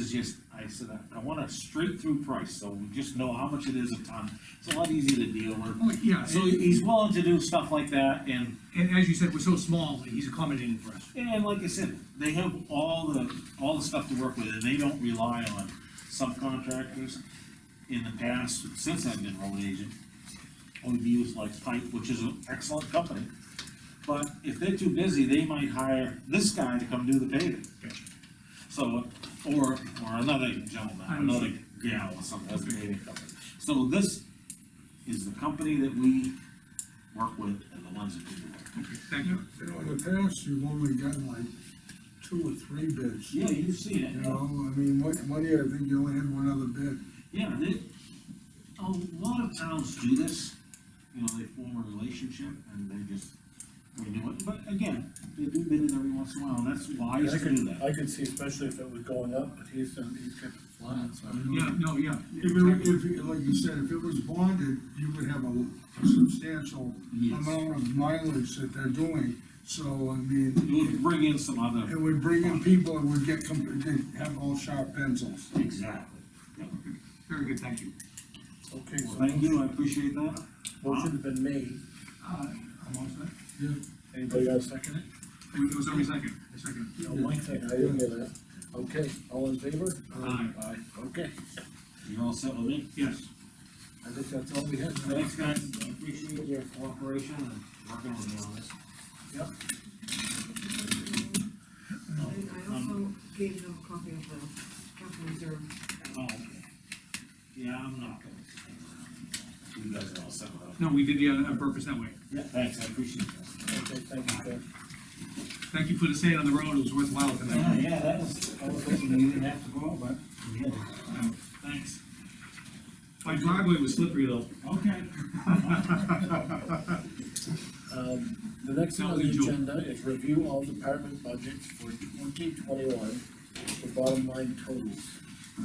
just, I said, I, I want a straight through price, so we just know how much it is a ton. It's a lot easier to deal with. Oh, yeah, So and- he's willing to do stuff like that, and, And as you said, we're so small, he's accommodating for us. and like I said, they have all the, all the stuff to work with, and they don't rely on subcontractors. In the past, since I've been road agent, we've used like Pike, which is an excellent company. But if they're too busy, they might hire this guy to come do the paving. So, or, or another gentleman, I another understand. gal or something, that's the paving company. So this is the company that we work with and the ones that we work. with. Okay, Thank you. You know, in the past, you've only gotten like two or three bids, you Yeah, you've seen it. know, I mean, one, one year, I think you only had one other bid. Yeah, they, a lot of towns do this, you know, they form a relationship and they just renew it, but again, they do bid it every once in a while, and that's wise I to do could, that. I could see especially if it was going up, but he's, done- he's kept it flat, so. Yeah, no, yeah. If it, were- exactly. if, it- like you said, if it was bonded, you would have a substantial Yes. amount of mileage that they're doing, so, It I would mean, bring in some other. it would bring in people that would get, com- they'd have all sharp pencils. Exactly. Yeah. Very good, thank you. Okay, Well, so Thank you, I appreciate that. motion has been made, Uh, I'm all set. Yeah. anybody else second it? There was only a second, a second. No, Mike seconded, I didn't hear that. Okay, all in favor? Aye. Aye, okay, You're all set with me? Yes. I think that's all we had. Thanks, guys, I appreciate your cooperation and working with me on this. Yep. And I also gave them a copy of the capital reserve. Oh, okay. Yeah, I'm not gonna. You guys are all set with that. No, we did the other on purpose that way. Yeah, thanks, I appreciate that. Okay, thank you, Jeff. Thank you for the sand on the road, it was worthwhile Yeah, tonight. yeah, that was, I was hoping we didn't have to go, but we did. Thanks. My driveway was slippery though. Okay. Um, the next thing on the Sounds enjoy- agenda is review all department budgets for twenty twenty-one, the bottom line totals.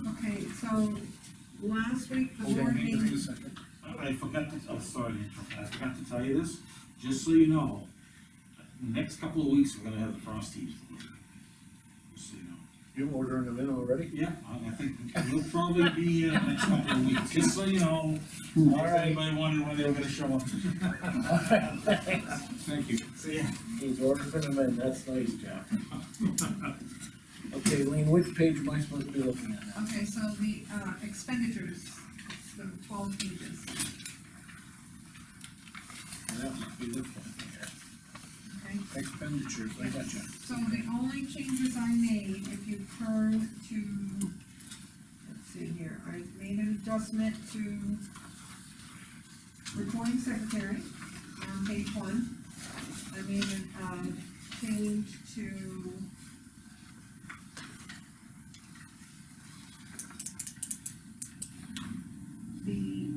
Okay, so last week, the Hold board on, just meeting, a second. I forgot to, I'm sorry, to interrupt. I forgot to tell you this, just so you know, next couple of weeks, we're gonna have the frost heave. Just so you know. You ordering them in already? Yeah, I I think you'll probably be here next couple of weeks, just so you know. All right. Anybody wondering when they were gonna show up? Thank you. See ya. He's ordering them in, that's nice, Jack. Okay, Lean, which page am I supposed to be looking at now? okay, so the uh, expenditures, it's the twelve pages. That must be this one here. Okay, Expenditures, I got you. so the only changes I made, if you turn to, let's see here, I made an adjustment to recording secretary on page one. I made an, um, change to the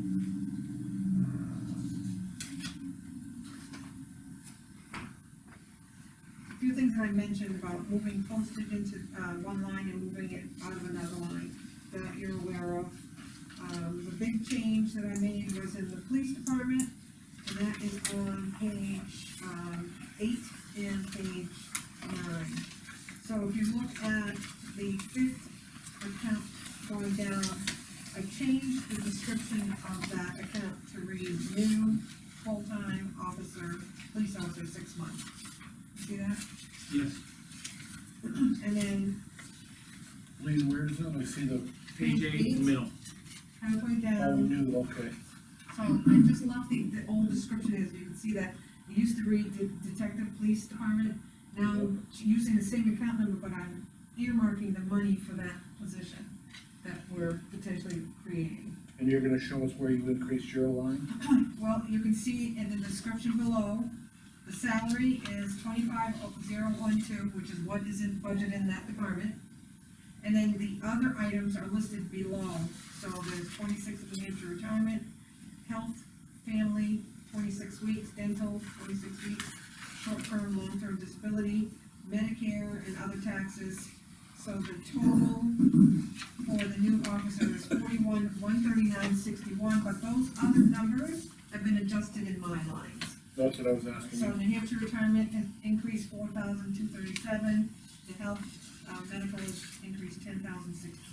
a few things that I mentioned about moving postage into, uh, one line and moving it out of another line that you're aware of. Um, the big change that I made was in the police department, and that is on page, um, eight and page nine. So if you look at the fifth account going down, I changed the description of that account to read new full-time officer, police officer, six months. See that? Yes. And then Lean, where is it? I see the, Page eight in the middle. halfway oh, down, new, okay. so I just left the, the old description as, you can see that, it used to read de- detective police department. Now, I'm using the same account number, but I'm earmarking the money for that position that we're potentially creating. And you're gonna show us where you increased your line? Well, you can see in the description below, the salary is twenty-five zero one two, which is what is in budget in that department. And then the other items are listed below, so there's twenty-six of the Hampshire retirement, health, family, twenty-six weeks, dental, twenty-six weeks, short-term, long-term disability, Medicare and other taxes. So the total for the new officer is forty-one, one thirty-nine, sixty-one, but those other numbers have been adjusted in my lines. That's what I was So asking. New Hampshire retirement has increased four thousand two thirty-seven, the health, uh, medical has increased ten thousand six